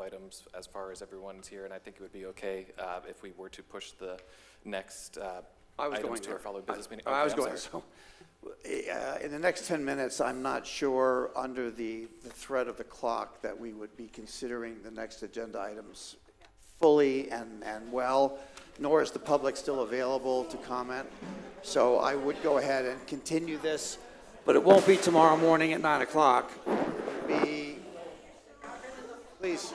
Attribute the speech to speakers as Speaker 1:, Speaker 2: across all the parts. Speaker 1: items as far as everyone's here, and I think it would be okay uh, if we were to push the next uh,
Speaker 2: I was
Speaker 1: items
Speaker 2: going
Speaker 1: to our
Speaker 2: there.
Speaker 1: follow business meeting.
Speaker 2: I I was
Speaker 1: Okay, I'm
Speaker 2: going,
Speaker 1: sorry.
Speaker 2: so,
Speaker 3: Uh, In the next 10 minutes, I'm not sure, under the the threat of the clock, that we would be considering the next agenda items fully and, and well, nor is the public still available to comment. So I would go ahead and continue this,
Speaker 2: but it won't be tomorrow morning at 9 o'clock.
Speaker 3: be, please,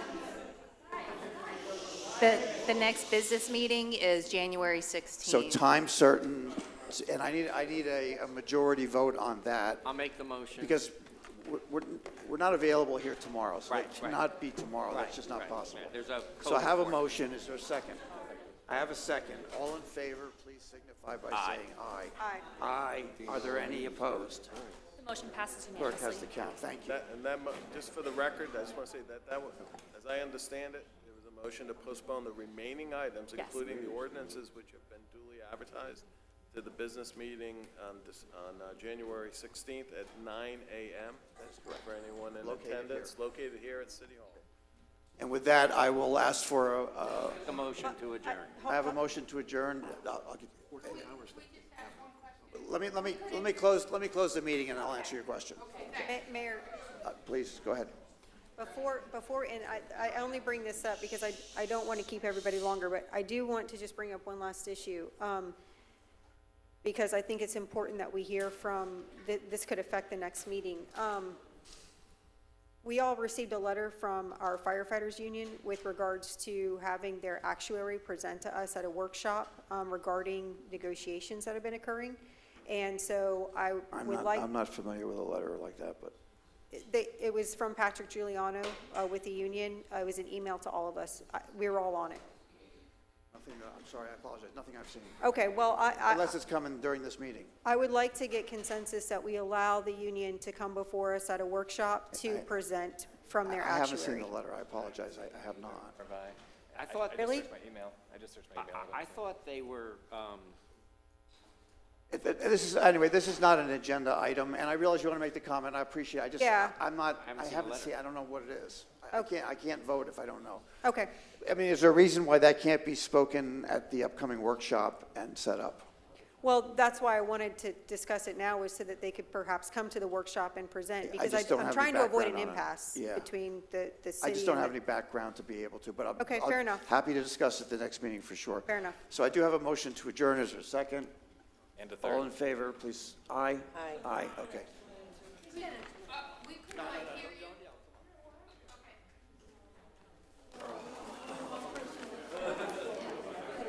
Speaker 4: The, the next business meeting is January 16th.
Speaker 3: so time certain, and I need, I need a, a majority vote on that.
Speaker 5: I'll make the motion.
Speaker 3: Because we're- we're, we're not available here tomorrow, so
Speaker 5: Right,
Speaker 3: it
Speaker 5: right.
Speaker 3: cannot be tomorrow,
Speaker 5: Right,
Speaker 3: that's just not
Speaker 5: right.
Speaker 3: possible.
Speaker 5: There's a
Speaker 3: So I have a
Speaker 5: code for it.
Speaker 3: motion, is there a second? I have a second, all in favor, please signify by saying aye.
Speaker 2: Aye. Are there any opposed?
Speaker 6: The motion passes
Speaker 3: Clerk
Speaker 6: unanimously.
Speaker 3: has the count, thank you.
Speaker 7: That, and that, mo- just for the record, I just want to say that, that was, as I understand it, there was a motion to postpone the remaining items,
Speaker 6: Yes.
Speaker 7: including the ordinances which have been duly advertised, to the business meeting on, Dec- on uh, January 16th at 9 a.m. That's correct. For anyone in
Speaker 3: Located here.
Speaker 7: attendance, located here at City Hall.
Speaker 3: And with that, I will ask for, a- a-
Speaker 5: The motion to adjourn.
Speaker 3: I have a motion to adjourn. Uh, I'll- I'll get- Let me, let me, let me close, let me close the meeting and I'll answer your question.
Speaker 8: Ma- Mayor,
Speaker 3: Uh, Please, go ahead.
Speaker 8: before, before, and I, I only bring this up because I, I don't want to keep everybody longer, but I do want to just bring up one last issue. um, Because I think it's important that we hear from, th- this could affect the next meeting. Um, We all received a letter from our firefighters union with regards to having their actuary present to us at a workshop um, regarding negotiations that have been occurring. And so I
Speaker 3: I'm
Speaker 8: would
Speaker 3: not,
Speaker 8: like.
Speaker 3: I'm not familiar with a letter like that, but.
Speaker 8: They, it was from Patrick Giuliano uh, with the union. Uh, It was an email to all of us. I- We were all on it.
Speaker 3: Nothing, that- I'm sorry, I apologize, nothing I've seen.
Speaker 8: Okay, well, I, I,
Speaker 3: Unless it's coming during this meeting.
Speaker 8: I would like to get consensus that we allow the union to come before us at a workshop to
Speaker 3: I-
Speaker 8: present from their
Speaker 3: I haven't seen
Speaker 8: actuary.
Speaker 3: the letter, I apologize, I I have not.
Speaker 1: Or by-
Speaker 5: I thought-
Speaker 1: just
Speaker 8: Really?
Speaker 1: searched my email. I just searched my
Speaker 5: I,
Speaker 1: email.
Speaker 5: I- I thought they were, um,
Speaker 3: It- it- This is, anyway, this is not an agenda item, and I realize you want to make the comment, I appreciate, it. I just,
Speaker 8: Yeah. Oh.
Speaker 3: I'm not, I
Speaker 5: haven't seen the
Speaker 3: haven't
Speaker 5: letter.
Speaker 3: seen, I don't know what it is. I I can't, I can't vote if I don't know.
Speaker 8: Okay,
Speaker 3: I mean, is there a reason why that can't be spoken at the upcoming workshop and set up?
Speaker 8: well, that's why I wanted to discuss it now was so that they could perhaps come to the workshop and
Speaker 3: I
Speaker 8: present. Because
Speaker 3: just don't
Speaker 8: I- I'm
Speaker 3: have
Speaker 8: trying
Speaker 3: any
Speaker 8: to avoid an
Speaker 3: background on it.
Speaker 8: impasse
Speaker 3: Yeah.
Speaker 8: between the, the city.
Speaker 3: I just don't
Speaker 8: and
Speaker 3: have
Speaker 8: the-
Speaker 3: any background to be able to, but I'm.
Speaker 8: Okay,
Speaker 3: I'll-
Speaker 8: fair enough.
Speaker 3: Happy to discuss it the next meeting for sure.
Speaker 8: Fair enough.
Speaker 3: So I do have a motion to adjourn, is there a second?
Speaker 1: And a
Speaker 3: All in
Speaker 1: third.
Speaker 3: favor, please, aye? Aye. Aye, okay.
Speaker 9: We could not hear you.